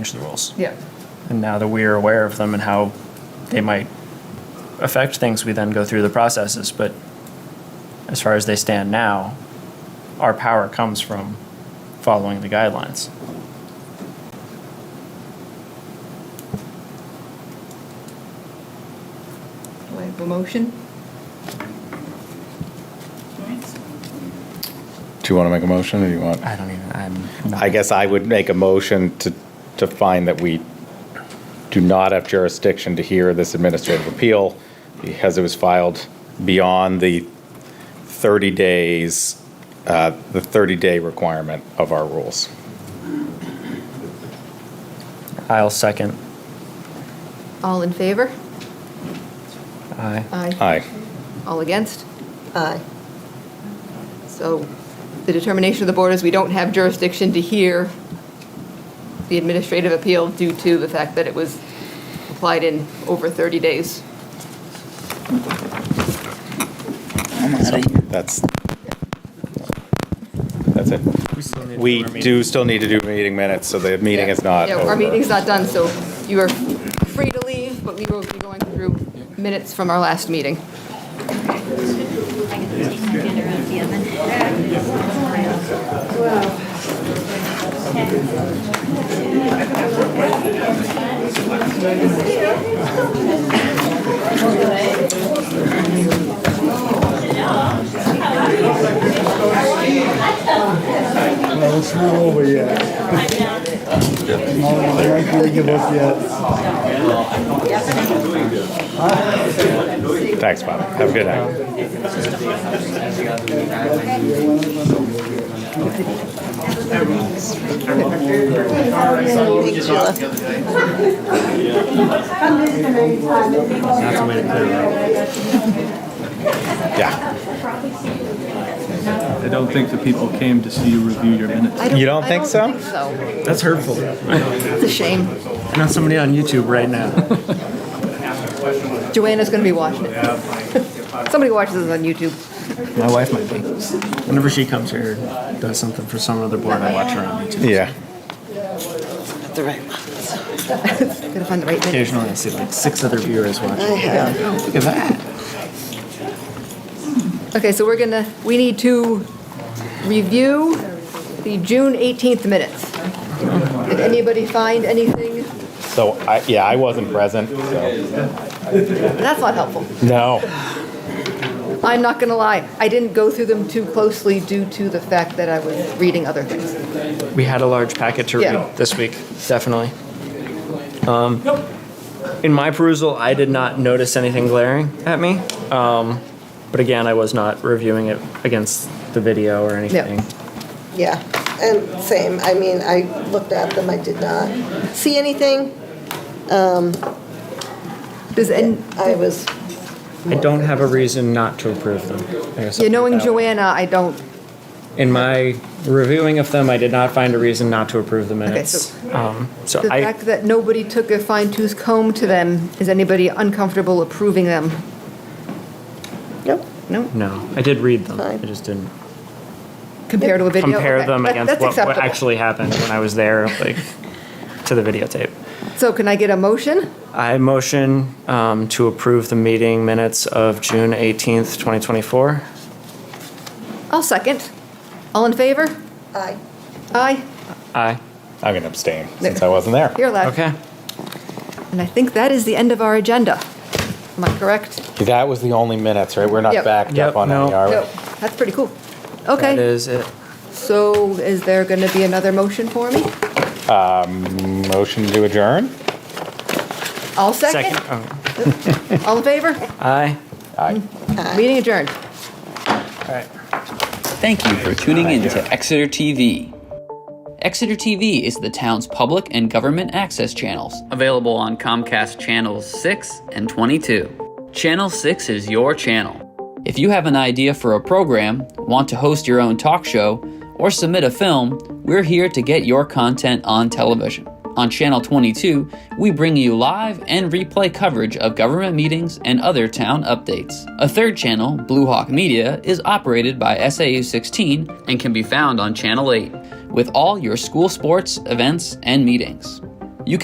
change the rules. Yeah. And now that we are aware of them and how they might affect things, we then go through the processes. But as far as they stand now, our power comes from following the guidelines. Do I have a motion? Do you want to make a motion or do you want? I don't even, I'm. I guess I would make a motion to, to find that we do not have jurisdiction to hear this administrative appeal because it was filed beyond the 30 days, uh, the 30-day requirement of our rules. I'll second. All in favor? Aye. Aye. Aye. All against? Aye. So the determination of the board is we don't have jurisdiction to hear the administrative appeal due to the fact that it was applied in over 30 days. That's, that's it. We do still need to do meeting minutes, so the meeting is not Yeah, over. Our meeting's not done, so you are free to leave, but we will be going through minutes from our last meeting. I get to take my dinner out of the oven. uh, Well, it's not over yet. No, they aren't gonna give up yet. Thanks, Bob. Have a good night. Yeah. I don't think the people came to see you review your minutes. You don't think I so? don't think so. That's hurtful. It's a shame. Not somebody on YouTube right now. Joanna's going to be watching it. Somebody watches this on YouTube. My wife might be. Whenever she comes here, and does something for some other board, I watch her on YouTube. Yeah. Gotta find the right minute. Occasionally, I see like six other viewers watching. Look at that. Okay, so we're gonna, we need to review the June 18th minutes. Did anybody find anything? So, I, yeah, I wasn't present, so. That's not helpful. No. I'm not gonna lie, I didn't go through them too closely due to the fact that I was reading other things. We had a large packet to Yeah. read this week, definitely. Um, In my perusal, I did not notice anything glaring at me. Um, But again, I was not reviewing it against the video or anything. Yeah, and same, I mean, I looked at them, I did not see anything, Does, and, I was, I don't have a reason not to approve them. I guess I'll yeah, put knowing it that way. Joanna, I don't, In my reviewing of them, I did not find a reason not to approve the minutes. Um, So the I, fact that nobody took a fine tooth comb to them, is anybody uncomfortable approving them? nope, No, no, I did read them. I Fine. just didn't compared to a video? compare Okay, them that- against that's what what acceptable. actually happened when I was there, like, to the videotape. So can I get a motion? I motion um, to approve the meeting minutes of June 18th, 2024. I'll second. All in favor? I, Aye. Aye. I'm gonna abstain, since I wasn't there. You're allowed. Okay. And I think that is the end of our agenda. Am I correct? That was the only minutes, right? We're not Yep. backed Yep, up on any, no. are we? No, that's pretty cool. That Okay, is it. so is there going to be another motion for me? Motion to adjourn? I'll second. Second. oh, All in favor? Aye. Aye. Meeting adjourned. All right. Thank you for tuning in to Exeter TV. Exeter TV is the town's public and government access channels, available on Comcast Channels 6 and 22. Channel 6 is your channel. If you have an idea for a program, want to host your own talk show, or submit a film, we're here to get your content on television. On Channel 22, we bring you live and replay coverage of government meetings and other town updates. A third channel, Blue Hawk Media, is operated by SAU 16 and can be found on Channel 8 with all your school sports, events, and meetings.